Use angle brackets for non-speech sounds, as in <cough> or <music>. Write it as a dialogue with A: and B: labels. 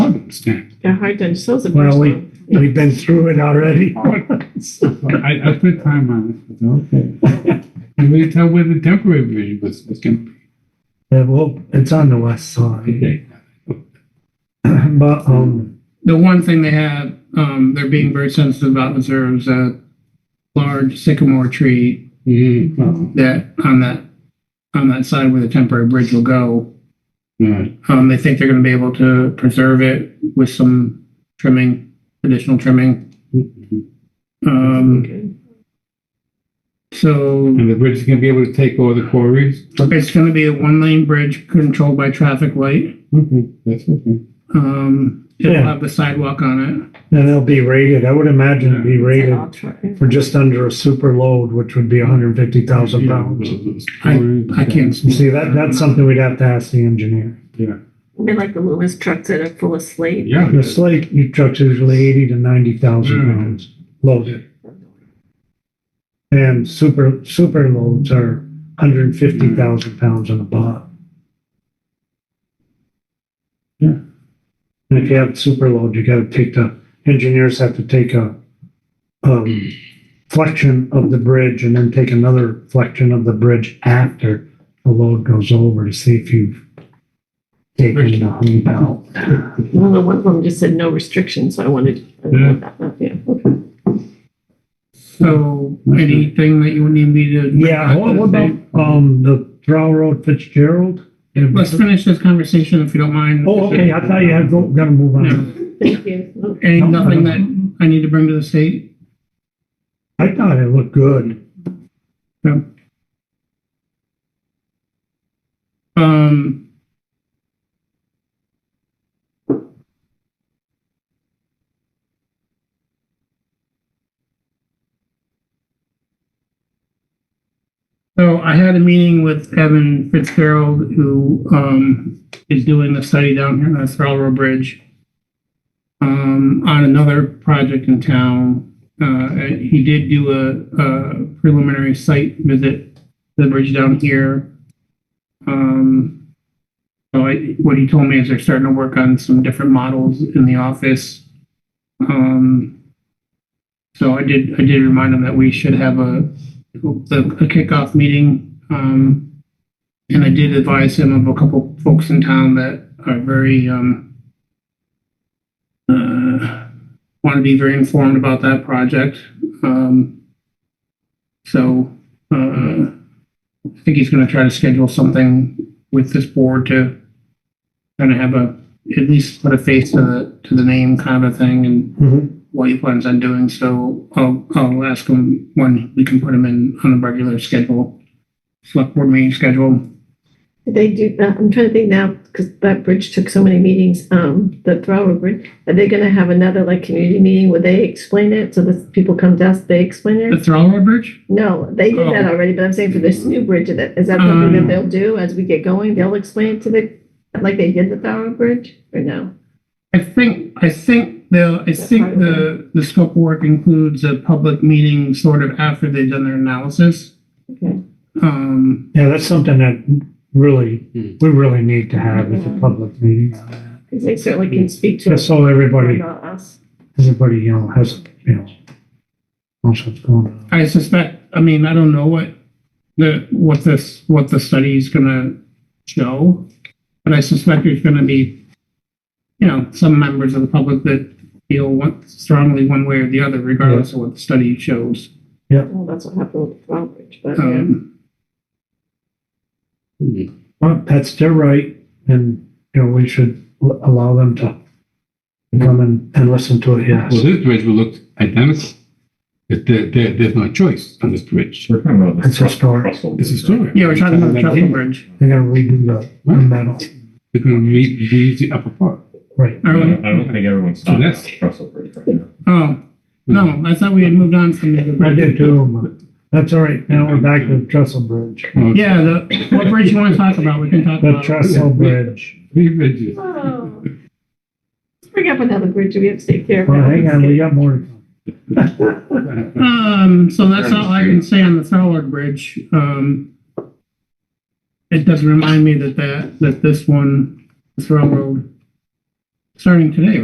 A: understand.
B: Yeah, Hardin sells a
C: Well, we-
B: personal.
C: We've been through it already.
A: I, I put time on it, <laughs> but okay. And we tell where the temporary bridge was, was gonna be.
C: <laughs> Yeah, well, it's on the west side,
A: Okay.
C: <clears throat> but, um,
D: The one thing they had, um, they're being very sensitive about is there was a large sycamore tree
A: Mm, well,
D: that on that, on that side where the temporary bridge will go.
A: right.
D: Um, they think they're gonna be able to preserve it with some trimming, additional trimming.
A: And
D: Um, so
A: the bridge is gonna be able to take all the quarries?
C: Mm-hmm.
D: it's gonna be a one lane bridge controlled by traffic light.
A: Okay, that's okay.
D: Um, it'll
C: Yeah.
D: have the sidewalk on
C: and they'll be rated, I would imagine it'd be rated
B: Rated.
C: for just under a super load, which would be hundred and fifty thousand pounds.
D: it. I can't.
C: You see, that, that's something we'd have to ask the engineer.
A: Yeah.
B: They're like the Loomis trucks that are full of slate.
A: Yeah.
C: The slate, your truck's usually eighty to ninety thousand
A: Yeah.
C: pounds loaded. And super, super loads are hundred and fifty thousand pounds on the bottom.
A: Yeah.
C: And if you have super load, you gotta take the, engineers have to take a, um, flexion of the bridge and then take another flexion of the bridge after the load goes over to see if you've taken the hump out.
B: Well, the one of them just said no restrictions, so I wanted. I
A: Yeah.
B: wanted that up, Yeah. okay.
D: So anything that you would need me to.
C: Mm-hmm. Yeah, what, what about, um, the Brow Road Fitzgerald?
D: Let's finish this conversation if you don't mind.
C: Oh, okay, I thought you had, go- gotta move on.
B: Thank you.
D: Any, nothing that I need to bring to the state?
C: I thought it looked good.
D: Um. So I had a meeting with Evan Fitzgerald, who, um, is doing the study down here on the Railroad Bridge. Um, on another project in town. Uh, he did do a, a preliminary site visit to the bridge down here. Um, so I, what he told me is they're starting to work on some different models in the office. Um, so I did, I did remind him that we should have a, the- a kickoff meeting. Um, and I did advise him of a couple folks in town that are very, um, uh, want to be very informed about that project. Um, so, uh, I think he's gonna try to schedule something with this board to kind of have a, at least put a face to the, to the name kind of a thing and what he plans on doing, so I'll, I'll ask him when we can put him in on a regular schedule. Select board meeting schedule.
B: Did They do, uh, I'm trying to think now, because that bridge took so many meetings, um, the Thrower Bridge. Are they gonna have another like community meeting where they explain it? So that people come to us, they explain
D: The
B: it?
D: Thralloway Bridge?
B: No, they did that
D: Oh.
B: already, but I'm saying for this new bridge, is that is that something that they'll do as we get going? They'll explain it to the, like they did the Thrower Bridge or no?
D: I think, I think the, I think the, the scope of work includes a public meeting sort of after they've done their analysis.
B: Okay.
D: Um,
C: Yeah, that's something that really,
A: Hmm.
C: we really need to have as a public meeting. on that.
B: Because they certainly can speak to
C: Just
B: us.
C: so everybody,
B: Not us.
C: everybody, you know, has, you know, knows what's going on.
D: I suspect, I mean, I don't know what the, what this, what the study is gonna show, but I suspect there's gonna be, you know, some members of the public that feel one, strongly one way or the other, regardless of what the study shows.
B: Well, that's what happened with the Thrower Bridge, but yeah.
D: Um,
C: Well, that's their right, and, you know, we should l- allow them to come and, and listen to
A: Well,
C: it, yes.
A: this bridge will look identical. But there, there, there's no choice on this bridge.
E: We're talking about
C: It's
E: this.
C: historic,
A: It's historic.
D: yeah, we're talking about the Trumbull Bridge.
C: they're gonna redo the, the metal,
A: They're gonna re, reuse the upper part.
C: right,
D: Are
E: I
D: we-
E: don't I don't think everyone's
A: So
E: talking about
A: that's-
E: the Russell Bridge right now.
D: Oh, no, I thought we had moved on from the other
C: I
D: bridge.
C: did too, but that's all right, now we're back to the trestle bridge,
A: Oh,
D: Yeah, the, what bridge you wanna talk about, we can talk
C: the
D: about. it.
C: trestle bridge.
A: Three
D: <laughs>
A: bridges.
B: Oh. <laughs> Let's bring up another bridge. We have to take care of.
C: Well, hang on, we
B: it.
C: got more. to come.
A: Mm-hmm.
D: Um, so that's all I can say on the Thorwald Bridge. Um, it does remind me that that, that this one, this railroad, starting today,